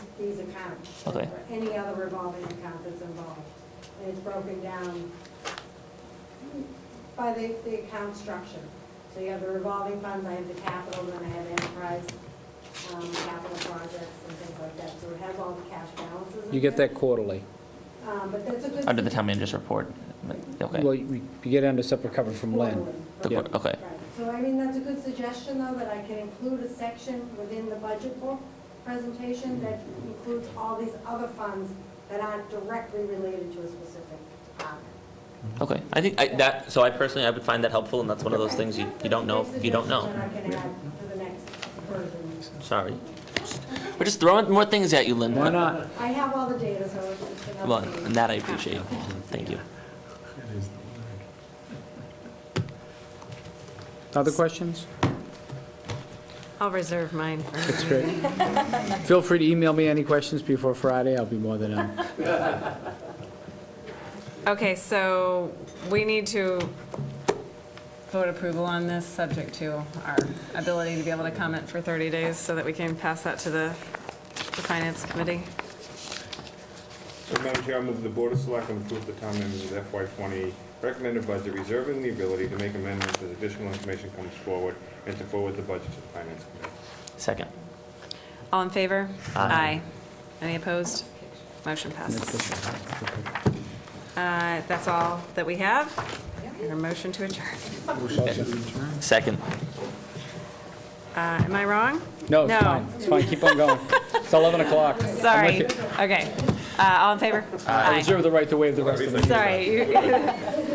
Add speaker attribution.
Speaker 1: these accounts.
Speaker 2: Okay.
Speaker 1: Or Any other revolving account that's involved. And it's broken down by the, the account structure. So you have the revolving funds, I have the capital, then I have enterprise, um, capital projects and things like that. So it has all the cash balances. in
Speaker 3: You get
Speaker 1: there.
Speaker 3: that quarterly.
Speaker 1: Um, but that's a good.
Speaker 2: Under the town manager's report? Okay.
Speaker 3: Well, you you get it under separate cover from Len.
Speaker 1: Quarterly,
Speaker 2: The
Speaker 1: right.
Speaker 2: qu- Okay,
Speaker 1: Right. So I mean, that's a good suggestion, though, that I can include a section within the budget book presentation that includes all these other funds that aren't directly related to a specific department.
Speaker 2: okay. I think I- that, so I personally, I would find that helpful, and that's one of those things you you don't know, if you don't know.
Speaker 1: That's a good suggestion that I can add to the next version.
Speaker 2: Sorry. We're just throwing more things at you, Lynn.
Speaker 3: Why not?
Speaker 1: I have all the data, so it's enough.
Speaker 2: Well, and that I appreciate. Thank you.
Speaker 3: Other questions?
Speaker 4: I'll reserve mine.
Speaker 3: That's great. Feel free to email me any questions before Friday, I'll be more than, um,
Speaker 4: Okay, so we need to vote approval on this, subject to our ability to be able to comment for 30 days so that we can pass that to the the Finance Committee.
Speaker 5: So, Madam Chair, I move the Board of Selectmen approve the town manager's FY '20 recommended budget, reserving the ability to make amendments as additional information comes forward, and to forward the budget to the Finance Committee.
Speaker 2: Second.
Speaker 4: All in favor?
Speaker 2: Aye.
Speaker 4: Any opposed? Motion passes. Uh, That's all that we have. And a motion to adjourn.
Speaker 2: Second.
Speaker 4: Uh, Am I wrong?
Speaker 3: no, it's fine, it's fine, keep on going. It's 11 o'clock.
Speaker 4: Sorry. Okay. Uh, All in favor?
Speaker 3: I reserve the right to waive the rest of the meeting.
Speaker 4: Sorry. you-